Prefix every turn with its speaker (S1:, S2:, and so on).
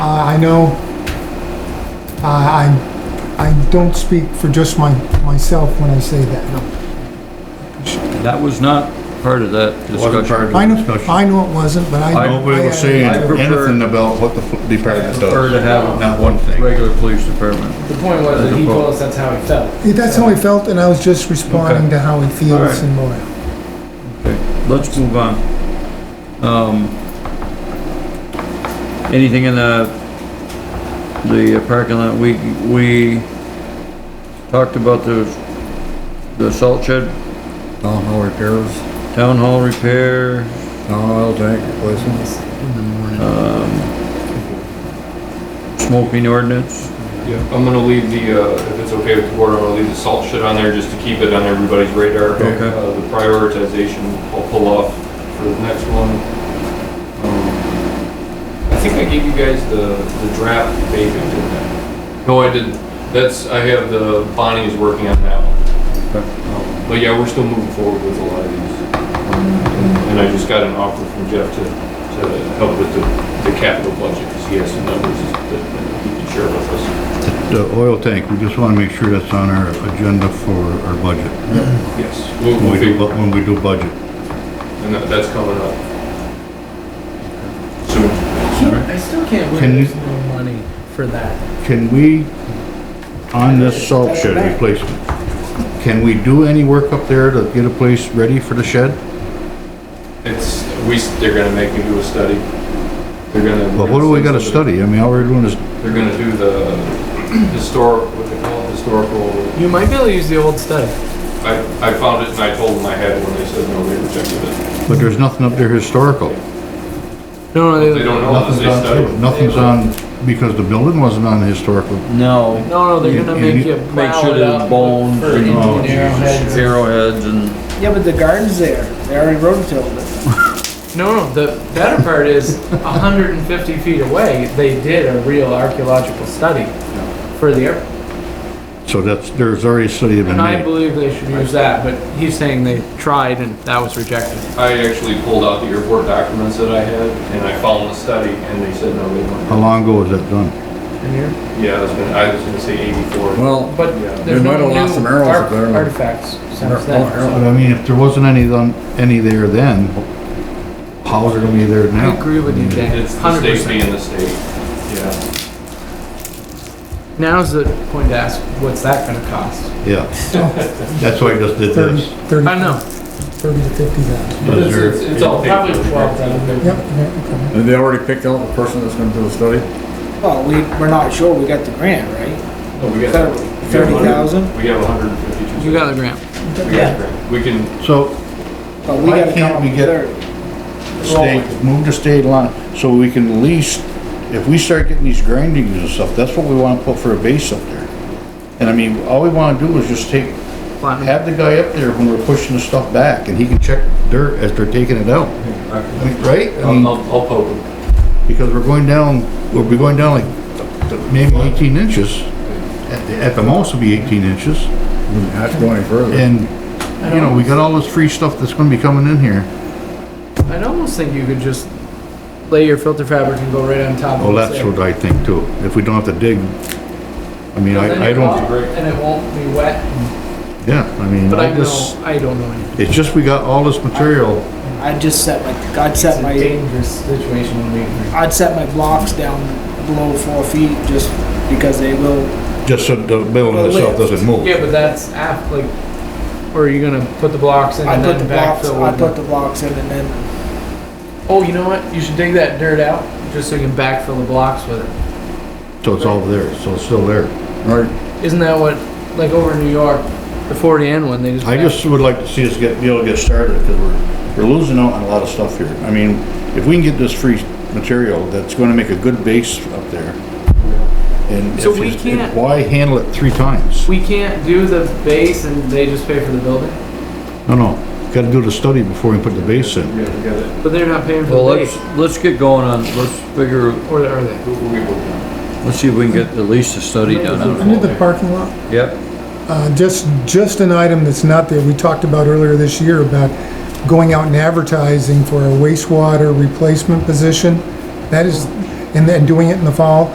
S1: know, uh, I, I don't speak for just my, myself when I say that.
S2: That was not part of that
S3: Wasn't part
S2: discussion.
S3: of
S1: I
S3: the
S1: know,
S3: discussion.
S1: I know it wasn't, but I.
S2: I
S3: No, we
S1: I-
S3: were saying
S1: I-
S2: I prefer-
S3: anything about what the f- department
S2: Prefer to
S3: does.
S2: have
S3: Not one thing.
S2: regular police department.
S4: The point was that he told us that's how he felt.
S1: Yeah, That's how he felt, and I was just responding to how he
S2: All
S1: feels
S2: right.
S1: and more.
S2: Okay, let's move on. Um, anything in the, the parking lot, we, we talked about the, the salt shed,
S3: Town hall repairs,
S2: town hall repair,
S3: town oil tank replacements.
S2: smoking ordinance.
S5: Yeah, I'm gonna leave the, uh, if it's okay with the board, I'm gonna leave the salt shit on there just to keep it on everybody's radar.
S2: Okay.
S5: Uh, The prioritization, I'll pull off for the next one. Um, I think I gave you guys the, the draft vacant, didn't I? No, I didn't. That's, I have the, Bonnie is working on that one.
S2: Okay.
S5: Um, But yeah, we're still moving forward with a lot of these. And I just got an offer from Jeff to, to help with the, the capital budget, because he has some numbers that he can share with us.
S3: The oil tank, we just wanna make sure that's on our agenda for our budget.
S5: Yes,
S3: When
S5: we'll, we'll
S3: we do,
S5: figure,
S3: bu- when we do budget.
S5: and that, that's coming up. Soon.
S4: Can't- I still can't
S3: Can you-
S4: believe there's no money for that.
S3: Can we, on this salt shed replacement, can we do any work up there to get a place ready for the shed?
S5: It's, we, s- they're gonna make me do a study. They're gonna.
S3: But what do we gotta study? I mean, all we're doing is,
S5: They're gonna do the historic, what they call it, historical,
S4: You might be able to use the old stuff.
S5: I, I found it and I told them I had one, they said no, they rejected it.
S3: but there's nothing up there historical.
S4: No, no,
S5: They don't know that
S3: Nothing's
S5: they studied.
S3: on, nothing's on, because the building wasn't on the historical.
S2: No.
S4: No, no, they're gonna
S3: You- you
S4: make you
S2: Make
S4: plow
S2: sure
S4: it
S2: there's
S4: up
S2: bones
S4: for 18
S3: Oh,
S2: and
S4: arrowheads.
S2: arrowheads and.
S6: Yeah, but the garden's there. They already rototilled it.
S4: No, no, the better part is 150 feet away, they did a real archaeological study for the airport.
S3: So that's, there's already a study been
S4: And I
S3: made.
S4: believe they should use that, but he's saying they tried and that was rejected.
S5: I actually pulled out the airport documents that I had and I found the study and they said no, they
S3: How
S5: won't.
S3: long ago was that done?
S4: And you're-
S5: Yeah, I was gonna, I was gonna say eighty-four.
S7: Well,
S4: But
S5: Yeah.
S4: there's
S7: They
S4: no
S7: might have lost some
S4: new
S7: arrows
S4: art-
S7: up there.
S4: artifacts since
S7: arrows.
S4: then.
S3: But I mean, if there wasn't any done, any there then, how's it gonna be there
S4: I
S3: now?
S4: agree with you, Dan,
S5: It's the
S4: hundred percent.
S5: state being the state, yeah.
S4: Now's the point to ask, what's that gonna cost?
S3: Yeah. That's why I just did
S1: Thirty,
S3: this.
S1: thirty,
S4: I know,
S1: thirty to fifty thousand.
S5: But
S3: Is there-
S5: It's, it's all
S4: probably
S5: paper.
S4: twelve then.
S1: Yep, yeah, okay.
S7: Have they already picked out the person that's gonna do the study?
S6: Well, we, we're not sure. We got the grant, right?
S5: No, we got-
S6: Thirty-
S5: we have
S6: 30,000?
S5: We have hundred and fifty-two.
S4: You got the grant.
S5: We can,
S3: So
S6: But we
S3: Why
S6: gotta come
S3: can't
S6: up
S3: we
S6: with
S3: get-
S6: thirty.
S3: state, move the state line, so we can at least, if we start getting these grindings and stuff, that's what we wanna put for a base up there. And I mean, all we wanna do is just take,
S4: Platinum.
S3: have the guy up there when we're pushing the stuff back, and he can check dirt as they're taking it out. I mean, Right? I
S5: I'll,
S3: mean,
S5: I'll I'll poke them.
S3: because we're going down, we'll be going down like maybe eighteen inches. At, the- at the most, it'll be eighteen inches,
S7: Not going further.
S3: and, you know, we got all this free stuff that's gonna be coming in here.
S4: I'd almost think you could just lay your filter fabric and go right on top of it.
S3: Well, that's what I think too, if we don't have to dig, I mean, I, I don't,
S4: And it won't be wet,
S3: yeah, I mean,
S4: but I
S3: I just,
S4: know, I don't know anything.
S3: it's just we got all this material,
S6: I just set my, God
S4: It's
S6: set
S4: a
S6: my,
S4: dangerous situation when we agree.
S6: I'd set my blocks down below four feet just because they will.
S3: just so the building itself doesn't move.
S4: Yeah, but that's app, like, or are you gonna put the blocks in
S6: I
S4: and
S6: put the
S4: then
S6: blocks,
S4: backfill?
S6: I
S4: with
S6: put
S4: it?
S6: the blocks in and then,
S4: Oh, you know what? You should dig that dirt out, just so you can backfill the blocks with it.
S3: So it's all there, so it's still there.
S7: Right,
S4: Isn't that what, like over in New York, the forty N one, they just.
S3: I
S4: back-
S3: just would like to see us get, be able to get started, because we're, we're losing out on a lot of stuff here. I mean, if we can get this free material, that's gonna make a good base up there. And
S4: So
S3: if
S4: we
S3: you-
S4: can't-
S3: Why handle it three times?
S4: We can't do the base and they just pay for the building,
S3: No, no, gotta do the study before we put the base in.
S5: Yeah, we got it.
S4: but they're not paying for
S2: Well,
S4: the
S2: let's,
S4: base,
S2: let's get going on, let's figure,
S4: or are they?
S5: We'll we'll get working.
S2: let's see if we can get at least a study done on
S1: Under the parking lot,
S2: it. Yep,
S1: Uh, just, just an item that's not there, we talked about earlier this year about going out and advertising for a wastewater replacement position. That is, and then doing it in the fall.